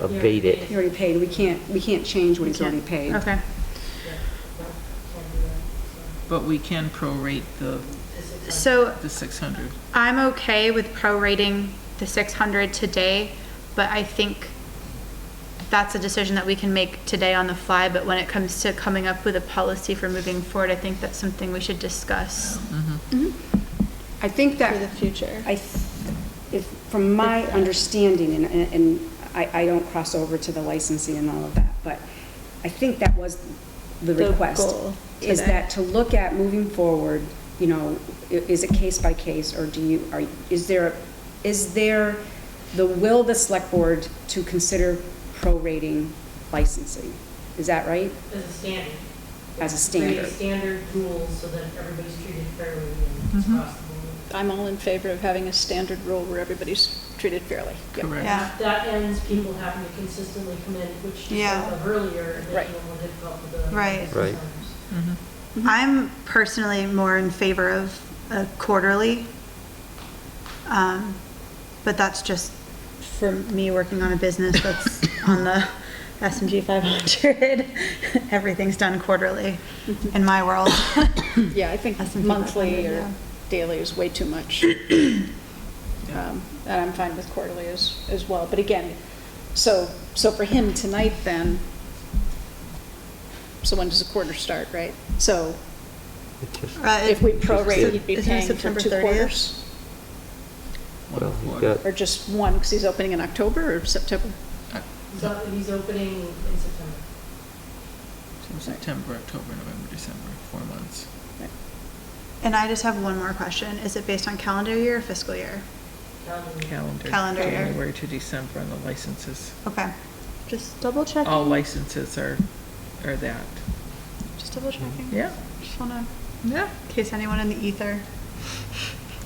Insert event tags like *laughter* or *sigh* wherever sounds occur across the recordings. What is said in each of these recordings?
abate it. He already paid, we can't, we can't change what he's We can't. already paid. Okay. But we can prorate the, So the six hundred. I'm okay with prorating the six hundred today, but I think that's a decision that we can make today on the fly, but when it comes to coming up with a policy for moving forward, I think that's something we should discuss I think for the that, future. I, th- if, from my understanding, and, and- and I, I don't cross over to the licensing and all of that, but I think that was the The request. goal Is today. that to look at moving forward, you know, i- is it case by case, or do you, are, is there, is there the will of the select board to consider prorating licensing? Is that right? As a standard. As a standard. Create standard rules so that everybody's treated fairly and Mm-hmm. across the board. I'm all in favor of having a standard rule where everybody's treated fairly. Yep. Correct. Yeah. That ends people having to consistently come in, which you Yeah. spoke of earlier, and Right. making it more difficult for the. Right. business Right. owners. Mm-hmm. I'm personally more in favor of a quarterly. Um, But that's just for me working on a business that's on the S and P 500. *laughs* Everything's done quarterly in my world. Yeah, I think S&P 500, monthly or yeah. daily is way too much. Um, And I'm fine with quarterly as, as well. But again, so, so for him tonight then, so when does the quarter start, right? So It just- Uh, if we prorate, Isn't he'd be it paying for September two 30th? quarters? Well, One you've quarter. got, Or just one, because he's opening in October or September? Uh, So he's opening in September. So September, October, November, December, four months. And I just have one more question. Is it based on calendar year or fiscal year? Calendar. Calendar. Calendar year. January to December on the licenses. Okay, just double All checking, licenses are, are that. just double checking. Yeah. Just wanna, Yeah. in case anyone in the ether.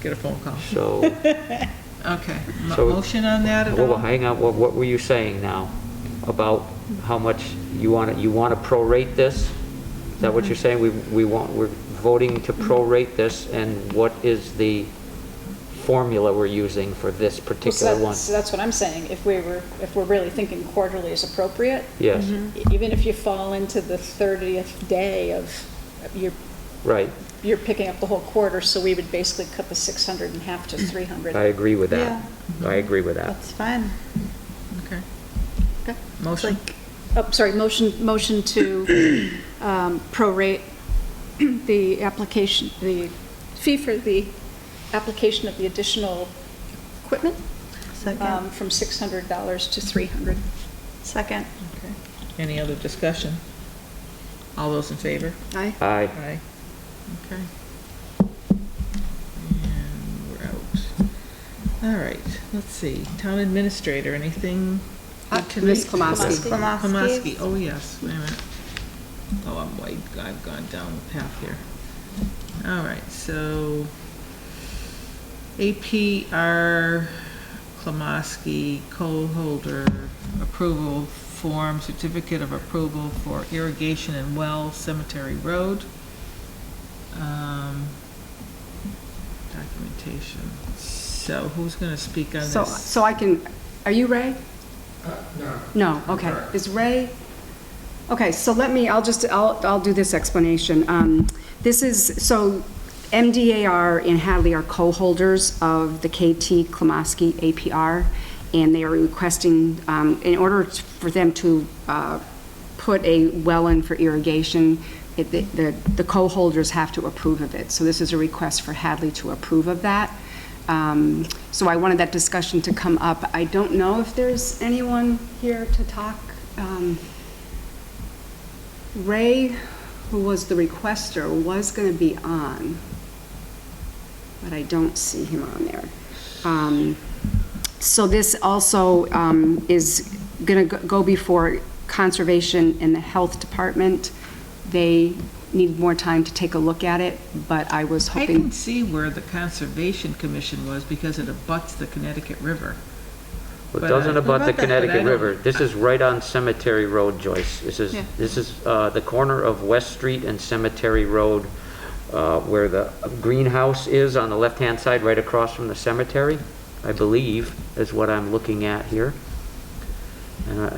Get a phone call. so, *laughs* Okay. Mo- so. Motion on that at Hold all? on, hang on, what, what were you saying now? About how much you want, you want to prorate this? Is that Mm-hmm. what you're saying? We, we want, we're voting to prorate this, and what is the formula we're using for this Well, so particular that- one? So that's what I'm saying, if we were, if we're really thinking quarterly is appropriate. Yes, Mm-hmm. e- Even if you fall into the 30th day of, you're, right, you're picking up the whole quarter, so we would basically cut the 600 in half to 300. I agree with that. I agree with that. That's fine. Okay. Okay. Motion? Oh, sorry, motion, motion to um, prorate the application, the fee for the application of the additional equipment um, Second, from $600 to 300. second. Okay. Any other discussion? All those in favor? Aye. Aye. Aye. Okay. And we're out. All right, let's see, town administrator, anything? Uh, good Ms. tonight? Klamowski. Klamowski. Klamowski, oh yes, wait a minute. Oh, I'm way, I've gone down the path here. All right, so APR Klamoski co-holder approval form, certificate of approval for irrigation and well cemetery road. Um, Documentation. So who's going to speak on this? So, so I can, are you Ray? No. No, okay. Is Ray? Okay, so let me, I'll just, I'll, I'll do this explanation. Um, This is, so MDAR and Hadley are co-holders of the KT Klamoski APR, and they are requesting, um, in order t- for them to uh, put a well in for irrigation, it- the, the- the co-holders have to approve of it. So this is a request for Hadley to approve of that. Um, So I wanted that discussion to come up. I don't know if there's anyone here to talk. Um, Ray, who was the requester, was going to be on, but I don't see him on there. Um, So this also um, is going to go before Conservation and the Health Department. They need more time to take a look at it, but I was I hoping. can see where the Conservation Commission was because it abuts the Connecticut River. Well, But It I- doesn't about the About that, but I Connecticut don't- River. This is right on Cemetery Road, Joyce. This is, Yeah. this is uh, the corner of West Street and Cemetery Road, uh, where the greenhouse is on the left-hand side, right across from the cemetery, I believe, is what I'm looking at here. And I-